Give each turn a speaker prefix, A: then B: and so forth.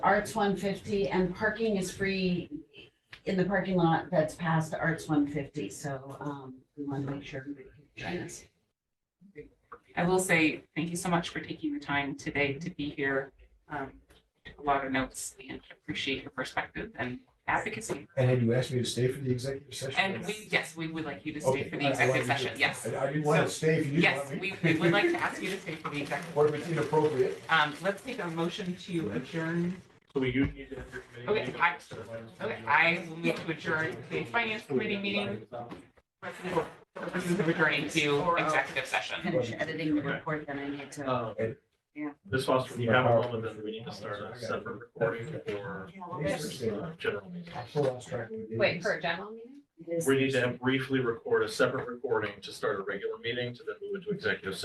A: Arts one fifty and parking is free in the parking lot that's past Arts one fifty, so, um, we want to make sure everybody can join us.
B: I will say, thank you so much for taking the time today to be here. Um, Took a lot of notes and appreciate your perspective and advocacy.
C: And had you asked me to stay for the executive session?
B: And we, yes, we would like you to
C: Okay,
B: stay for
C: I-
B: the
C: I
B: executive
C: wanted you to-
B: session, yes.
C: I I didn't want to
B: So,
C: stay if you didn't
B: Yes,
C: want me.
B: we, we would like to ask you to stay for the executive.
C: What if it's inappropriate?
B: Um, let's take a motion to adjourn.
D: So we do need to have your committee.
B: Okay,
D: meeting.
B: I- Okay, I will move to adjourn the finance committee meeting. for Purposes of adjourning to executive session.
A: Finish editing the report that I need to.
D: Um,
B: Yeah.
D: This was, you have a moment, then we need to start a separate recording for uh, general meeting.
C: I lost track of the
E: Wait,
C: dates.
E: for a general meeting?
A: It is-
D: We need to have briefly record a separate recording to start a regular meeting to then move into executive session.